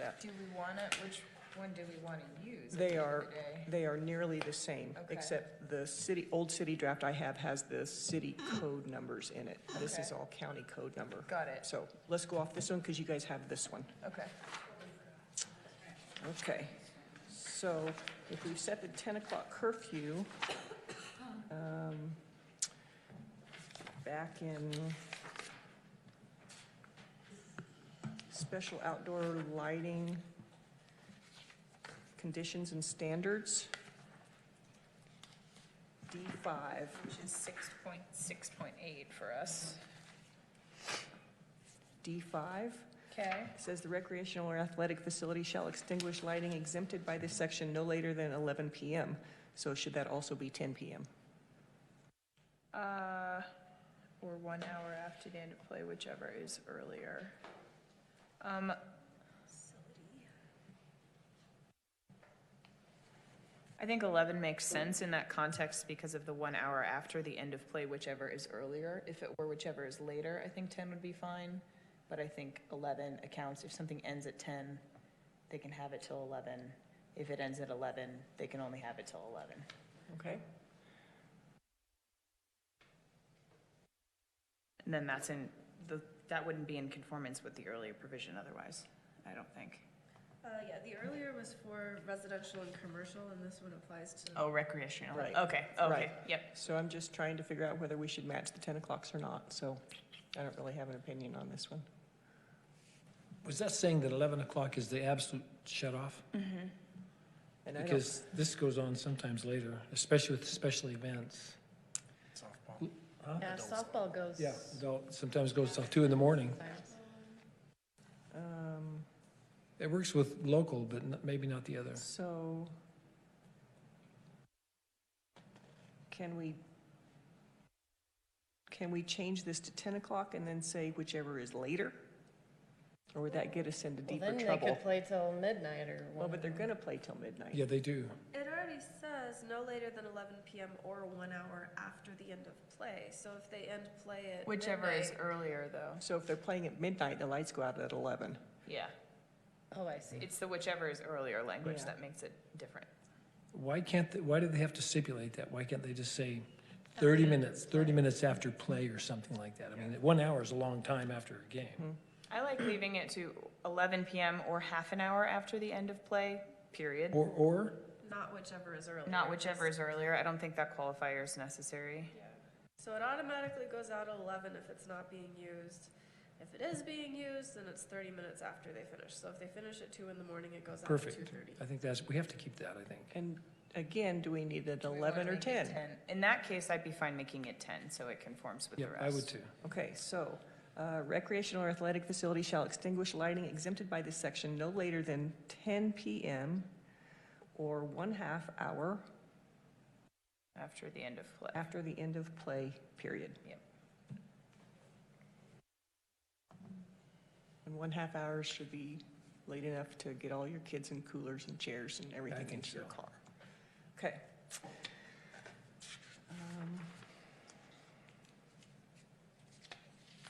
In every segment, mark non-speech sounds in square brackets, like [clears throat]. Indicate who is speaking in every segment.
Speaker 1: up.
Speaker 2: Do we want to, which one do we want to use? at
Speaker 1: They
Speaker 2: the end of
Speaker 1: are,
Speaker 2: the day?
Speaker 1: they are nearly the same,
Speaker 2: Okay.
Speaker 1: except the city, old city draft I have has the
Speaker 2: [clears throat]
Speaker 1: city code numbers in it. This is
Speaker 2: Okay.
Speaker 1: all county code number.
Speaker 2: Got it.
Speaker 1: So let's go off this one because you guys have this one.
Speaker 2: Okay.
Speaker 1: Okay. So if we've set the 10 o'clock curfew, um, back in special outdoor lighting conditions and standards, D5.
Speaker 2: Which is six point, six point eight for us.
Speaker 1: D5
Speaker 2: Okay.
Speaker 1: says the recreational or athletic facility shall extinguish lighting exempted by this section no later than 11 PM. So should that also be 10 PM?
Speaker 2: Uh, or one hour after the end of play, whichever is earlier. Um. I think eleven makes sense in that context because of the one hour after the end of play, whichever is earlier. If it were whichever is later, I think ten would be fine. But I think eleven accounts, if something ends at ten, they can have it till eleven. If it ends at eleven, they can only have it till eleven.
Speaker 1: Okay.
Speaker 2: And then that's in, the, that wouldn't be in conformance with the earlier provision otherwise, I don't think.
Speaker 3: Uh, yeah, the earlier was for residential and commercial, and this one applies to.
Speaker 2: Oh, recreational,
Speaker 1: Right.
Speaker 2: okay, okay,
Speaker 1: Right.
Speaker 2: yep.
Speaker 1: So I'm just trying to figure out whether we should match the 10 o'clocks or not, so I don't really have an opinion on this one.
Speaker 4: Was that saying that 11 o'clock is the absolute shut-off?
Speaker 1: And I don't,
Speaker 4: Because this goes on sometimes later, especially with special events.
Speaker 5: Softball.
Speaker 4: Huh?
Speaker 6: Yeah, softball goes.
Speaker 4: Adult, sometimes goes till 2 in the morning.
Speaker 6: sometimes.
Speaker 1: um,
Speaker 4: It works with local, but n- maybe not the other.
Speaker 1: so can we, can we change this to 10 o'clock and then say whichever is later? Or would that get us into
Speaker 6: Well,
Speaker 1: deeper
Speaker 6: then they
Speaker 1: trouble?
Speaker 6: could play till midnight or.
Speaker 1: Well, but they're
Speaker 6: whatever.
Speaker 1: gonna play till midnight.
Speaker 4: Yeah, they do.
Speaker 3: It already says no later than eleven PM or one hour after the end of play, so if they end play at
Speaker 2: Whichever is
Speaker 3: midnight-
Speaker 2: earlier though,
Speaker 1: So if they're playing at midnight, the lights go out at 11.
Speaker 2: yeah.
Speaker 6: Oh, I see.
Speaker 2: It's the whichever is earlier language
Speaker 1: Yeah.
Speaker 2: that makes it different.
Speaker 4: Why can't, they- why do they have to stipulate that? Why can't they just say 30 minutes, 30 minutes after play or something like that? I mean, one hour is a long time after a game.
Speaker 2: I like leaving it to eleven PM or half an hour after the end of play, period.
Speaker 4: Or, or,
Speaker 3: Not whichever is earlier.
Speaker 2: Not whichever is earlier, I don't think that qualifier is necessary.
Speaker 3: So it automatically goes out at eleven if it's not being used. If it is being used, then it's thirty minutes after they finish, so if they finish at two in the morning, it goes out at
Speaker 4: Perfect.
Speaker 3: two thirty.
Speaker 4: I think that's, we have to keep that, I think.
Speaker 1: And again, do we need an
Speaker 2: Do we wanna
Speaker 1: 11 or
Speaker 2: make it
Speaker 1: 10?
Speaker 2: In that case, I'd be fine making it ten, so it conforms with the
Speaker 4: Yeah,
Speaker 2: rest.
Speaker 4: I would too.
Speaker 1: Okay, so uh, recreational or athletic facility shall extinguish lighting exempted by this section no later than 10 PM or one half hour
Speaker 2: After the end of play.
Speaker 1: after the end of play period.
Speaker 2: Yep.
Speaker 1: And one half hour should be late enough to get all your kids and coolers and chairs and everything
Speaker 4: think
Speaker 1: into your
Speaker 4: so.
Speaker 1: car. Okay. Um,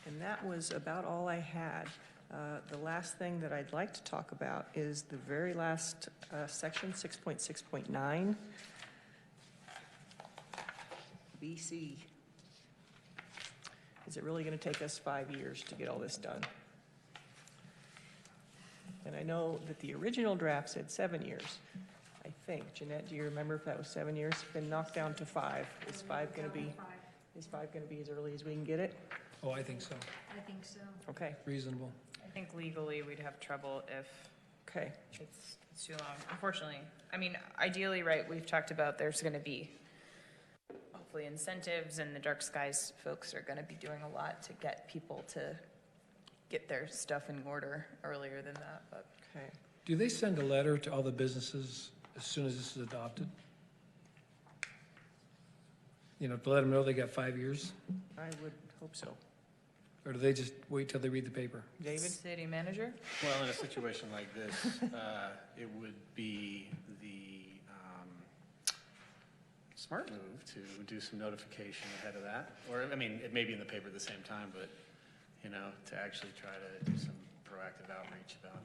Speaker 1: And that was about all I had. Uh, The last thing that I'd like to talk about is the very last uh, section, 6.6.9. BC. Is it really going to take us five years to get all this done? And I know that the original draft said seven years, I think. Jeanette, do you remember if that was seven years? Been knocked down to five. Is five going to be, is five going to be as early as we can get it?
Speaker 4: Oh, I think so.
Speaker 7: I think so.
Speaker 1: Okay,
Speaker 4: Reasonable.
Speaker 2: I think legally, we'd have trouble if
Speaker 1: okay.
Speaker 2: it's, it's too long, unfortunately. I mean, ideally, right, we've talked about there's gonna be hopefully incentives, and the dark skies folks are gonna be doing a lot to get people to get their stuff in order earlier than that, but
Speaker 1: Okay.
Speaker 4: Do they send a letter to all the businesses as soon as this is adopted? You know, to let them know they got five years?
Speaker 1: I would hope so.
Speaker 4: Or do they just wait till they read the paper?
Speaker 1: David?
Speaker 2: city manager?
Speaker 5: Well, in a situation like this, uh, it would be the um, smart move to do some notification ahead of that. Or, I mean, it may be in the paper at the same time, but, you know, to actually try to do some proactive outreach about